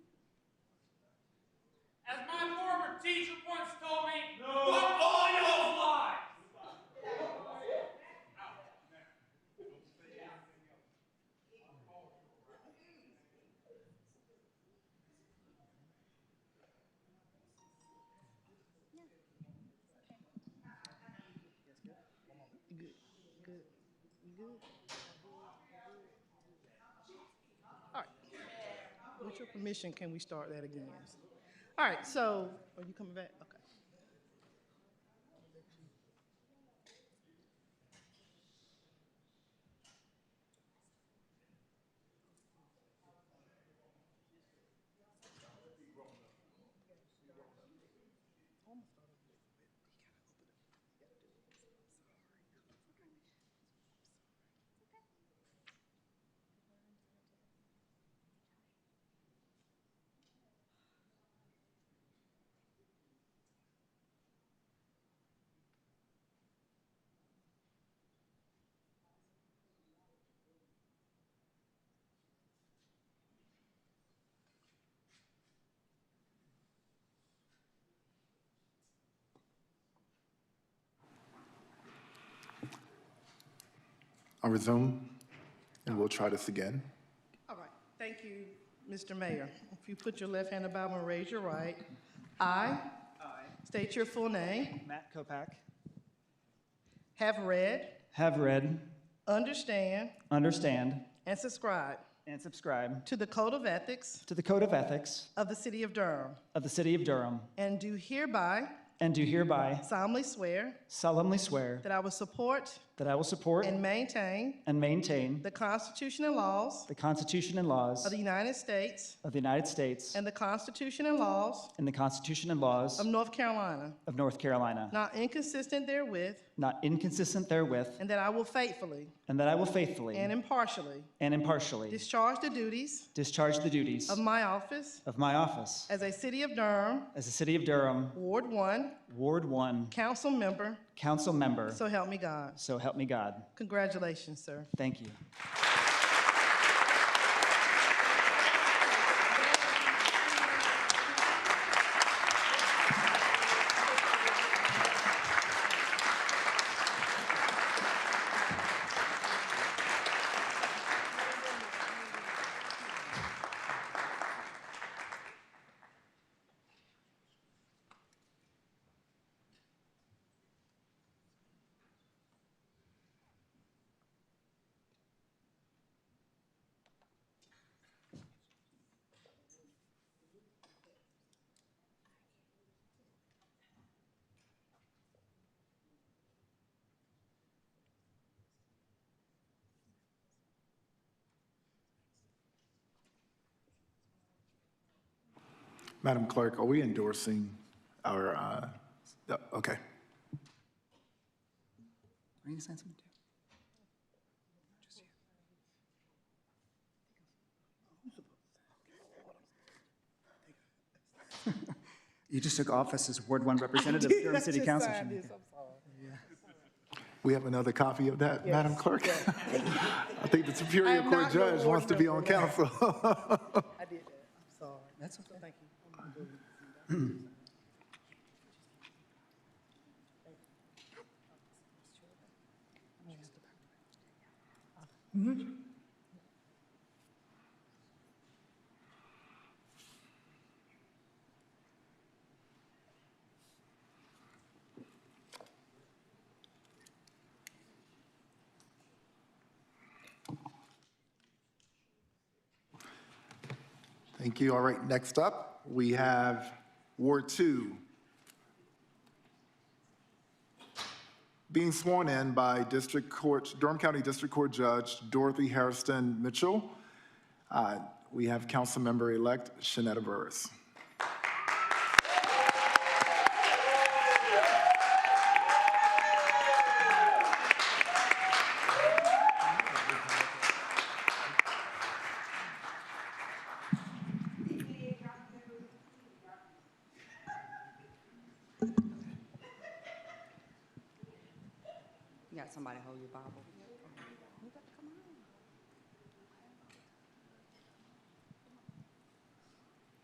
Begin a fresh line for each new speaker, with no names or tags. teacher once told me, fuck all y'all's lives.
Good, good, good. All right. With your permission, can we start that again? All right, so, are you coming back? Okay.
I'll resume, and we'll try this again.
All right, thank you, Mr. Mayor. If you put your left hand about and raise your right. I
I,
state your full name,
Matt Kopak,
have read,
have read,
understand,
understand,
and subscribe
and subscribe
to the Code of Ethics
to the Code of Ethics
of the City of Durham,
of the City of Durham,
and do hereby
and do hereby
solemnly swear
solemnly swear
that I will support
that I will support
and maintain
and maintain
the Constitution and laws
the Constitution and laws
of the United States
of the United States
and the Constitution and laws
and the Constitution and laws
of North Carolina,
of North Carolina,
not inconsistent therewith,
not inconsistent therewith,
and that I will faithfully
and that I will faithfully
and impartially
and impartially
discharge the duties
discharge the duties
of my office
of my office
as a City of Durham
as a City of Durham
Ward 1
Ward 1
Council Member,
Council Member.
so help me God.
So help me God.
Congratulations, sir.
Thank you.
Madam Clerk, are we endorsing our, uh, no, okay.
Are you gonna sign something too? You just took office as Ward One Representative, Durham City Council. Shamika.
We have another copy of that, Madam Clerk? I think the
I
Superior
am
Court
not your
judge
ward
wants to be on
member.
council.
I did that, I'm sorry. That's okay. Thank you.
Thank you. All right, next up, we have Ward Two. Being sworn in by District Court, Durham County District Court Judge Dorothy Harrison Mitchell. Uh, We have Councilmember-elect Shanetta Burris.
You got somebody hold your Bible.